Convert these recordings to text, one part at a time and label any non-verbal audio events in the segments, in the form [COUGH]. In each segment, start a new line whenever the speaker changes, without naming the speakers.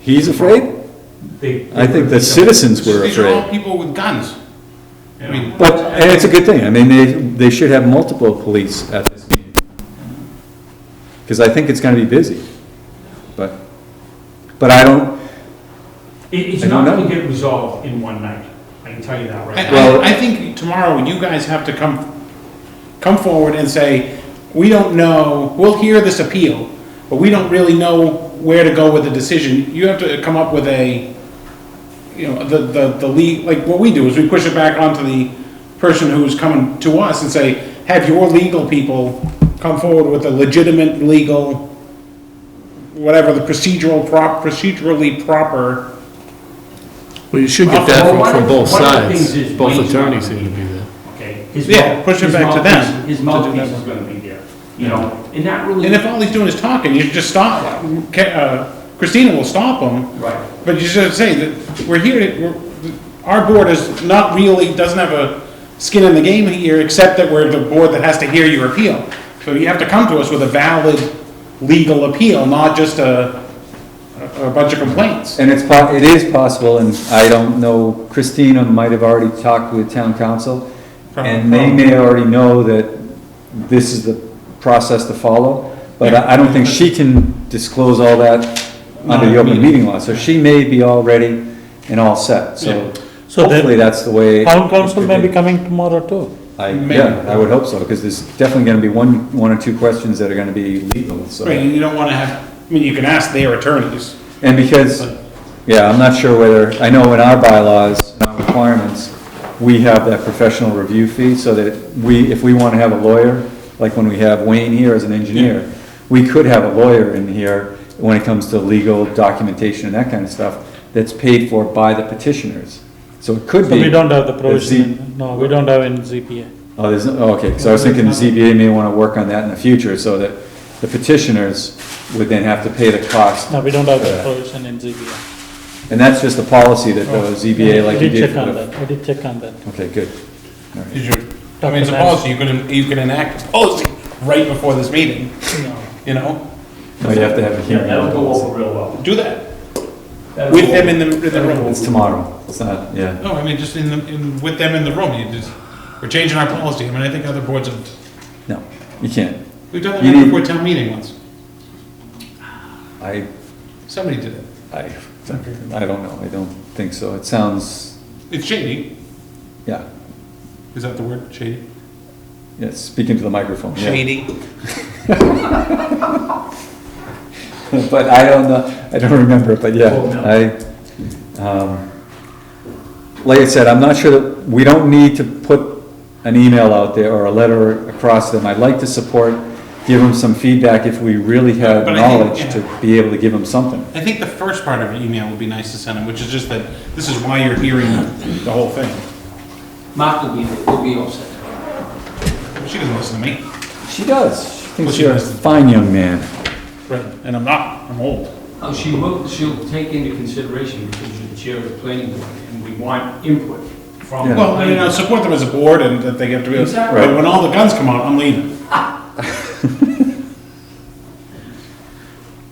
He's afraid?
They-
I think the citizens were
These are all
afraid.
people with guns. I mean,
But, and it's a good thing, I mean, they, they should have multiple police at this meeting. Because I think it's gonna be busy, but, but I don't,
It, it's
I don't
not gonna
know.
get resolved in one night, I can tell you that right now.
I-
Well-
I, I think tomorrow you guys have to come, come forward and say, we don't know, we'll hear this appeal, but we don't really know where to go with the decision. You have to come up with a, you know, the, the, the le, like what we do is we push it back onto the person who's coming to us and say, have your legal people come forward with a legitimate, legal, whatever, the procedural prop, procedurally proper
Well, you should get that
Well, one
from,
of-
from both
one of the things
sides.
is
Both
Wayne's
attorneys
not
seem
gonna
to
be
be there.
okay? His
Yeah,
mouth-
push it
his
back to
mouthpiece-
them
His
to do that.
mouthpiece is gonna be there, you know, and that really.
And if all he's doing is talking, you just stop, Ca- uh, Christina will stop him,
Right,
but you should say that we're here, to- we're- our board is not really, doesn't have a skin in the game here, except that we're the board that has to hear your appeal. So you have to come to us with a valid legal appeal, not just a, a bunch of complaints.
and it's po, it is possible, and I don't know, Christina might have already talked with town council, and they may already know that this is the process to follow, but I, I don't think she can disclose all that under the open meeting law, so she may be all ready and all set, so
So then-
hopefully that's the way.
Town
it's gonna
council may be coming tomorrow too.
I,
Maybe.
yeah, I would hope so, because there's definitely gonna be one, one or two questions that are gonna be legal, so.
Right, and you don't wanna have, I mean, you can ask their attorneys.
And because, yeah, I'm not sure whether, I know in our bylaws, in our requirements, we have that professional review fee, so that we, if we wanna have a lawyer, like when we have Wayne here as an engineer, we could have a lawyer in here when it comes to legal documentation and that kind of stuff, that's paid for by the petitioners. So it could
So
be.
we don't have the
that Z-
provision, no, we don't have in ZPA.
Oh, there's, no- oh, okay, because I was thinking the ZBA may want to work on that in the future, so that the petitioners would then have to pay the cost.
No, we don't have the
Yeah.
provision in ZPA.
And that's just a policy that
Oh.
the ZBA like you
We
did
did check
for
on
the.
that, we did check on that.
Okay, good. All right.
Did you, I mean, it's a policy, you can, you can enact a policy right before this meeting, you know?
Oh, you have to have a
yeah,
hearing.
that'll go
on
over real well.
Do that.
That'll
With
go
them
over.
in the, in the
it.
room.
It's tomorrow, it's not, yeah.
No, I mean, just in the, in, with them in the room, you just, we're changing our policy. I mean, I think other boards have,
No, you can't.
we've done
You
that
need-
before town meeting once.
I,
Somebody did it.
I, I don't know, I don't think so. It sounds,
It's shady.
yeah,
Is that the word, shady?
yeah, speaking to the microphone, yeah. [LAUGHS] But I don't know, I don't remember, but yeah,
Oh, no.
I, um, like I said, I'm not sure that, we don't need to put an email out there or a letter across them. I'd like to support, give them some feedback if we really have
But I think,
knowledge
yeah.
to be able to give them something.
I think the first part of your email would be nice to send them, which is just that this is why you're hearing the whole thing.
Mark will be, will be upset.
She doesn't listen to me,
She does, she
Well,
thinks
she
you're a
does.
fine young man.
and I'm not, I'm old.
Oh, she will, she'll take into consideration because you're the chair of the planning board and we want input from.
Yeah.
Well, I mean, I support them as a board and that they have to be,
Exactly.
but when all the guns come out, I'm leaving.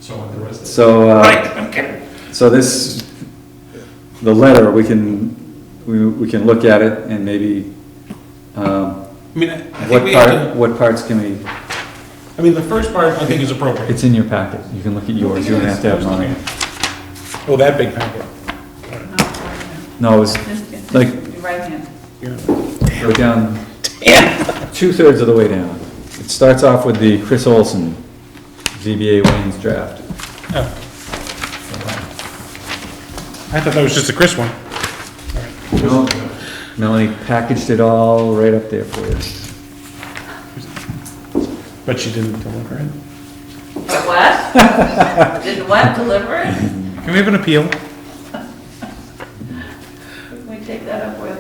So on the rest of
So,
Right,
uh,
I'm kidding.
so this, the letter, we can, we, we can look at it and maybe, um,
I mean, I I think
what
we have
part,
to,
what parts can we?
I mean, the first part I think is appropriate.
It's in your packet, you can look at yours, you don't have to have mine.
Oh, that big packet.
No, it's Like-
Right hand.
go down, two-thirds of the way down. It starts off with the Chris Olson, ZBA Wayne's draft.
Oh. I thought that was just a Chris one.
No, Melanie packaged it all right up there for you.
But she didn't deliver it.
What? Did what deliver? it?
Can we have an appeal?
Can we take that up with?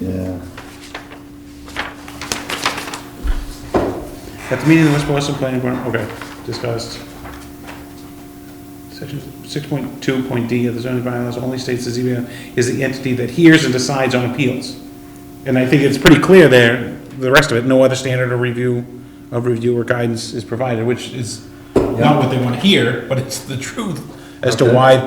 Yeah.
At the meeting of the West Boylston Planning Board, okay, discussed. Section six point two point D of the zoning bylaws only states the ZBA is the entity that hears and decides on appeals. And I think it's pretty clear there, the rest of it, no other standard of review, of review or guidance is provided, which is not what they want to hear, but it's the truth as to
Okay.
why